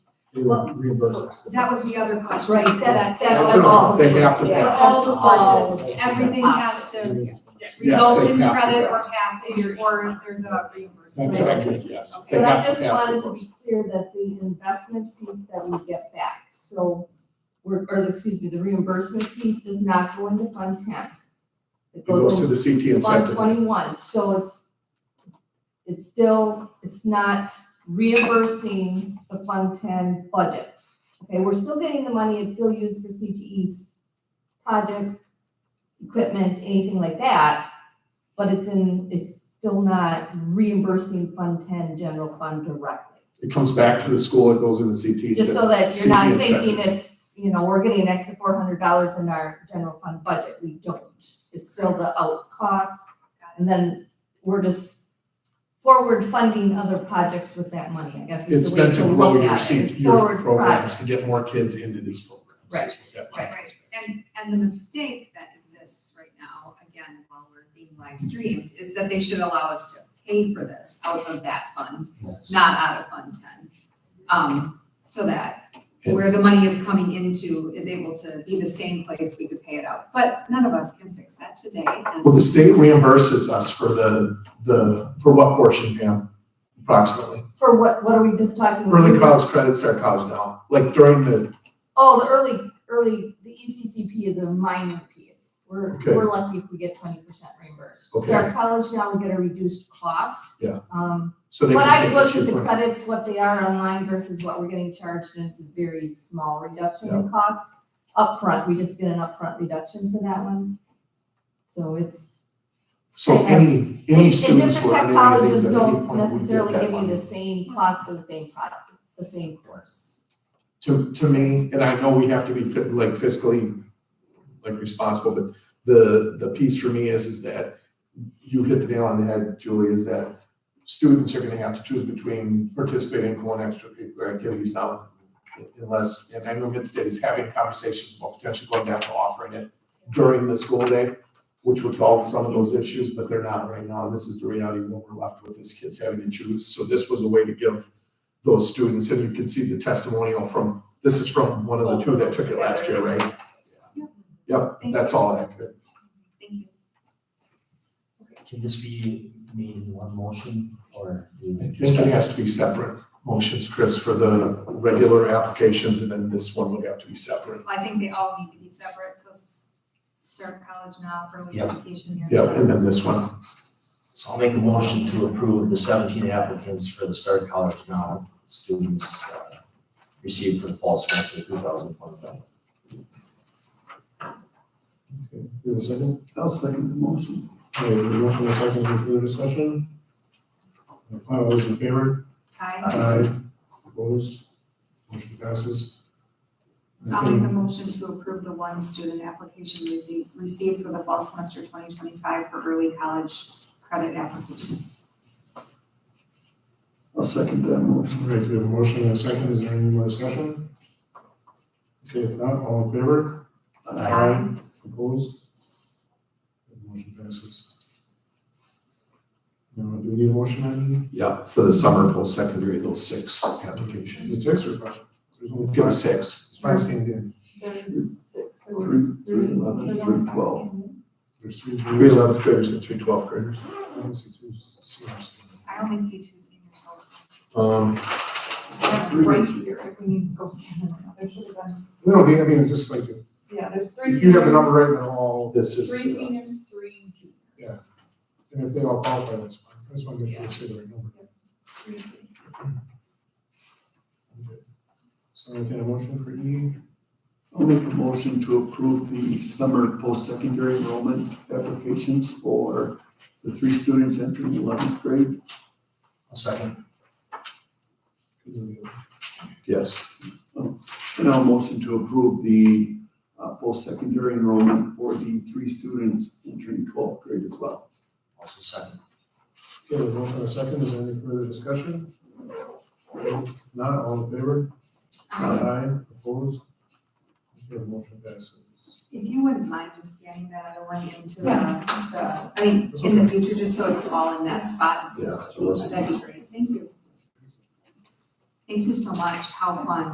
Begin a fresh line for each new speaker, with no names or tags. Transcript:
they would reimburse us.
That was the other question.
Right,
is
that's,
that
that's
That's what
all.
they have to
Yeah,
pass.
All the
All,
buses.
everything has to
Yes, they
result in
have to
credit or
pass.
passage or there's a reimbursement.
That's accurate, yes. They
But I
have to
just
pass
wanted
it
to
first.
be clear that the investment piece that we get back, so, we're- or excuse me, the reimbursement piece does not go into Fund Ten. It
It goes to
in
the CT
Fund
incentive.
Twenty-one, so it's, it's still, it's not reimbursing the Fund Ten budget. Okay, we're still getting the money, it's still used for CTE's projects, equipment, anything like that, but it's in, it's still not reimbursing Fund Ten general fund directly.
It comes back to the school, it goes in the CT.
Just so that you're not
CT
thinking
incentive.
it's, you know, we're getting an extra four hundred dollars in our general fund budget, we don't. It's still the out cost, and then we're just forward funding other projects with that money, I guess
It's
is the way
meant
to
to grow
look
your
at it,
CT,
is
your
forward
programs, to
projects.
get more kids into these programs.
Right,
is what that
right,
money is.
And, and the mistake that exists right now, again, while we're being live streamed, is that they should allow us to pay for this out of that fund, not out of Fund Ten. Um, so that where the money is coming into is able to be the same place we could pay it out. But none of us can fix that today. and-
Well, the state reimburses us for the, the, for what portion, Pam? Approximately.
For what, what are we just talking? about?
Early college credits start college now, like during the,
Oh, the early, early, the E ECCP is a minor piece. We're,
Okay.
we're lucky if we get twenty percent reimbursed.
Okay.
So our college now, we get a reduced cost.
Yeah.
Um,
so they
When
can
I
take what
looked at
you
the
put.
credits, what they are online versus what we're getting charged, and it's a very small reduction in cost. Upfront, we just get an upfront reduction for that one. So it's,
So any,
and,
any
and different
students who are
tech
in any of
colleges
these at any point
don't
would get
necessarily
that
give you the
money.
same cost for the same product, the same course.
To, to me, and I know we have to be fi- like fiscally, like responsible, but the, the piece for me is, is that you hit the nail on the head, Julie, is that students are gonna have to choose between participating in co-extracurricular activities now unless, and I know Midstate is having conversations about potentially going back to offering it during the school day, which would solve some of those issues, but they're not right now. And this is the reality of what we're left with is kids having to choose. So this was a way to give those students, and you can see the testimonial from, this is from one of the two that took it last year, right? Yep, that's all accurate.
Thank you.
Can this be made in one motion or? do
I
we
think
just-
it has to be separate motions, Chris, for the regular applications, and then this one would have to be separate.
I think they all need to be separate, so s- start college now, early
Yep.
education here.
Yep, and then this one.
So I'll make a motion to approve the seventeen applicants for the Start College Now students uh, received for the fall semester two thousand twenty-five.
Okay, you have a second?
I'll second the motion.
Okay, the motion is second, any further discussion? All those in favor?
Hi,
uh,
Aye. Opposed? Motion passes.
I'll make a motion to approve the one student application received, received for the fall semester twenty twenty-five for early college credit application.
I'll second that motion.
All right, we have a motion and a second. Is there any more discussion? Okay, if not, all in favor? Opposed? Motion passes. Now, do we need a motion on
Yeah, for the summer post-secondary, those six applications.
is it six or five? There's only
Give
five.
us six.
It's five standing in.
There's six, there
Three,
was
three
three.
eleven, three twelve.
There's three.
Three eleventh graders and three twelfth graders.
I don't see two seniors.
I only see two seniors.
Um,
Right here, if we need to go stand around, there should have been,
No, I mean, I mean, just like, if-
yeah, there's three.
if you have the
seniors,
number right, they're all,
this is, uh,
seniors, three juniors.
and if they all qualify, that's fine. I just want to make sure we say the right number.
Three
Okay. So I can a motion for E.
I'll make a motion to approve the summer post-secondary enrollment applications for the three students entering eleventh grade.
I'll second.
yes.
And I'll motion to approve the uh, post-secondary enrollment for the three students entering twelfth grade as well.
Also second.
Okay, there's one for a second. Is there any further discussion? Not all in favor? Aye, opposed? Okay, the motion passes.
If you wouldn't mind just scanning that other one into the, the, I mean, in the future, just so it's all in that spot.
Yeah,
just-
it was-
That'd be great, thank you. Thank you so much, how fun.